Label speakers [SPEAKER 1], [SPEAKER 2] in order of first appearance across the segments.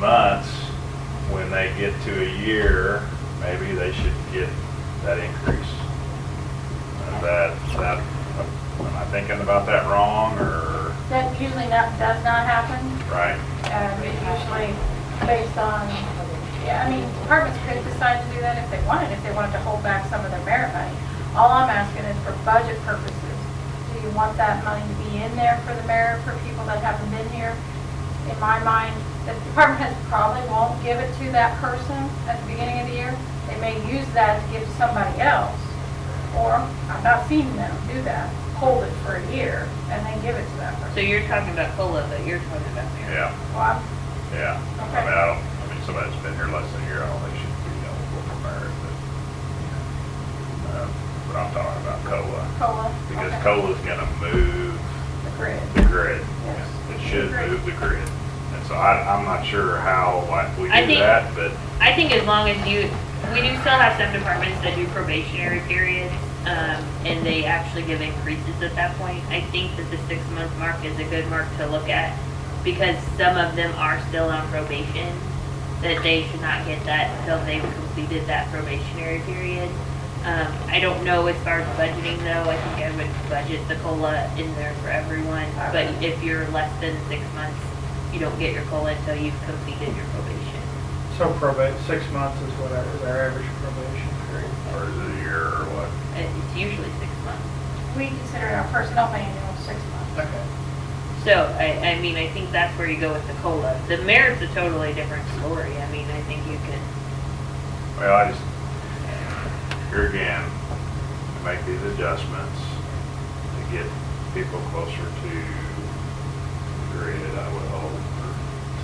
[SPEAKER 1] months, when they get to a year, maybe they should get that increase. Is that, that, am I thinking about that wrong, or,
[SPEAKER 2] That usually not, does not happen.
[SPEAKER 1] right?
[SPEAKER 2] Um, It's usually based on, yeah, I mean, departments could decide to do that if they wanted, if they wanted to hold back some of their merit money. All I'm asking is for budget purposes, do you want that money to be in there for the merit, for people that haven't been here? In my mind, the department heads probably won't give it to that person at the beginning of the year. They may use that to give to somebody else, or I've not seen them do that, hold it for a year and then give it to that person.
[SPEAKER 3] So you're talking about COLA, but you're talking about merit.
[SPEAKER 1] Yeah,
[SPEAKER 2] Well, I'm
[SPEAKER 1] yeah. I mean, I don't, I mean, somebody that's been here less than a year, I don't think should be eligible for merit, but, uh, but I'm talking about COLA.
[SPEAKER 2] COLA.
[SPEAKER 1] Because
[SPEAKER 2] okay.
[SPEAKER 1] COLA's gonna move
[SPEAKER 2] The grid.
[SPEAKER 1] the grid.
[SPEAKER 2] Yes.
[SPEAKER 1] It should move the grid. And so I, I'm not sure how, like, we
[SPEAKER 3] I
[SPEAKER 1] do
[SPEAKER 3] think-
[SPEAKER 1] that, but
[SPEAKER 3] I think as long as you, we do still have some departments that do probationary periods, um, and they actually give increases at that point. I think that the six-month mark is a good mark to look at, because some of them are still on probation, that they should not get that until they've completed that probationary period. Um, I don't know as far as budgeting though, I think I would budget the COLA in there for everyone, but if you're less than six months, you don't get your COLA until you've completed your probation.
[SPEAKER 4] So probate, six months is whatever their average probation period.
[SPEAKER 1] or is it a year or what?
[SPEAKER 3] It's usually six months.
[SPEAKER 2] We consider our personnel manual six months.
[SPEAKER 4] Okay.
[SPEAKER 3] So, I, I mean, I think that's where you go with the COLA. The merit's a totally different story. I mean, I think you can,
[SPEAKER 1] Well, I just, here again, I make these adjustments to get people closer to the grade, I would hope, or to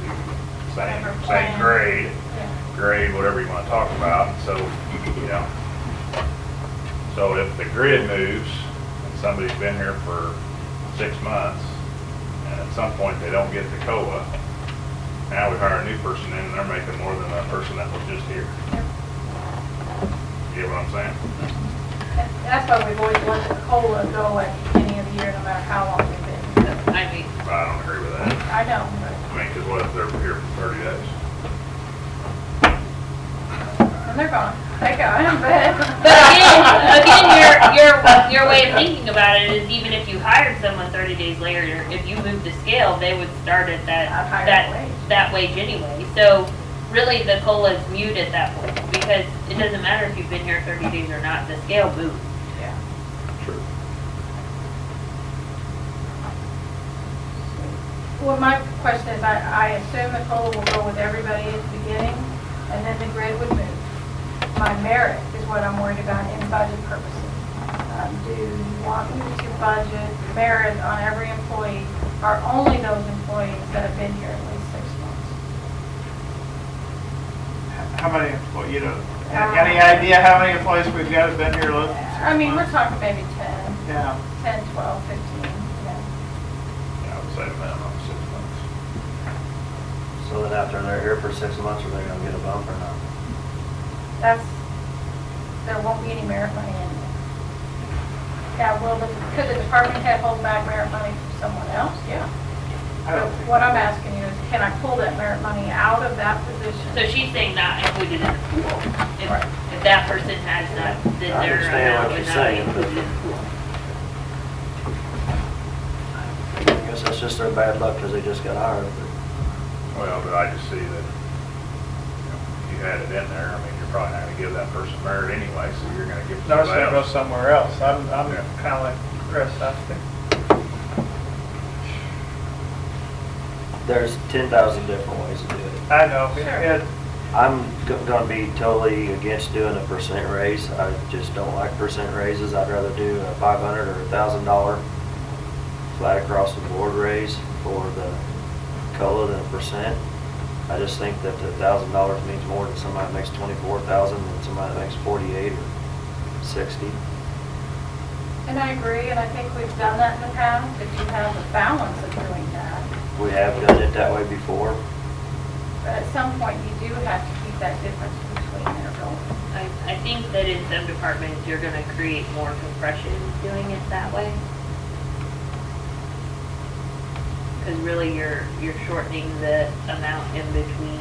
[SPEAKER 1] same,
[SPEAKER 2] Whatever
[SPEAKER 1] same
[SPEAKER 2] plan.
[SPEAKER 1] grade,
[SPEAKER 2] Yeah.
[SPEAKER 1] grade, whatever you want to talk about, so, you know. So if the grid moves, and somebody's been here for six months, and at some point they don't get the COA, now we hire a new person in, and they're making more than that person that was just here. You get what I'm saying?
[SPEAKER 2] And That's why we've always let the COLA go at the beginning of the year, no matter how long we've been.
[SPEAKER 3] so, I mean,
[SPEAKER 1] But I don't agree with that.
[SPEAKER 2] I know, but,
[SPEAKER 1] I mean, because what if they're here for 30 days?
[SPEAKER 2] and they're gone. They go, but.
[SPEAKER 3] but again, again, your, your, your way of thinking about it is even if you hired someone thirty days later, if you move the scale, they would start at that,
[SPEAKER 2] A higher
[SPEAKER 3] that,
[SPEAKER 2] wage.
[SPEAKER 3] that wage anyway. So really, the COLA is mute at that point because it doesn't matter if you've been here thirty days or not, the scale moves.
[SPEAKER 2] Yeah.
[SPEAKER 1] True.
[SPEAKER 2] Well, my question is, I, I assume the COLA will go with everybody at the beginning, and then the grid would move. My merit is what I'm worried about in budget purposes. Um, Do you want me to budget merit on every employee, or only those employees that have been here at least six months?
[SPEAKER 4] How many employees, you know, any idea how many employees we've got have been here? less than six
[SPEAKER 2] I mean, we're
[SPEAKER 4] months?
[SPEAKER 2] talking maybe 10,
[SPEAKER 4] Yeah,
[SPEAKER 2] 10, 12, 15, you know.
[SPEAKER 1] Yeah, I would say minimum six months.
[SPEAKER 5] So then after they're here for six months, are they gonna get a bump or not?
[SPEAKER 2] That's, there won't be any merit money in there. Now, will the, could the department head hold back merit money from someone else? Yeah. But
[SPEAKER 4] I don't think,
[SPEAKER 2] what I'm asking you is, can I pull that merit money out of that
[SPEAKER 3] So
[SPEAKER 2] position?
[SPEAKER 3] she's saying not included in the pool. If, if that person has not, then
[SPEAKER 5] I
[SPEAKER 3] their
[SPEAKER 5] understand
[SPEAKER 3] amount
[SPEAKER 5] what
[SPEAKER 3] would
[SPEAKER 5] you're
[SPEAKER 3] not be
[SPEAKER 5] saying, but-
[SPEAKER 3] included in the pool.
[SPEAKER 5] I guess that's just their bad luck because they just got hired, but
[SPEAKER 1] Well, but I just see that, you know, if you had it in there, I mean, you're probably not gonna give that person merit anyway, so you're gonna give it to
[SPEAKER 4] notice
[SPEAKER 1] somebody
[SPEAKER 4] they go
[SPEAKER 1] else.
[SPEAKER 4] somewhere else. I'm, I'm
[SPEAKER 1] Yeah.
[SPEAKER 4] kinda like Chris, I think.
[SPEAKER 5] there's ten thousand different ways to do it.
[SPEAKER 4] I know,
[SPEAKER 2] Sure.
[SPEAKER 4] it,
[SPEAKER 5] I'm go- gonna be totally against doing a percent raise. I just don't like percent raises. I'd rather do a five hundred or a thousand dollar flat across the board raise for the COLA than a percent. I just think that the thousand dollars means more than somebody that makes twenty-four thousand than somebody that makes forty-eight or sixty.
[SPEAKER 2] And I agree, and I think we've done that in the past, if you have the balance of doing that.
[SPEAKER 5] We have done it that way before.
[SPEAKER 2] But at some point, you do have to keep that difference between their roles.
[SPEAKER 3] I, I think that in some departments, you're gonna create more compression doing it that way. Cause really, you're, you're shortening the amount in between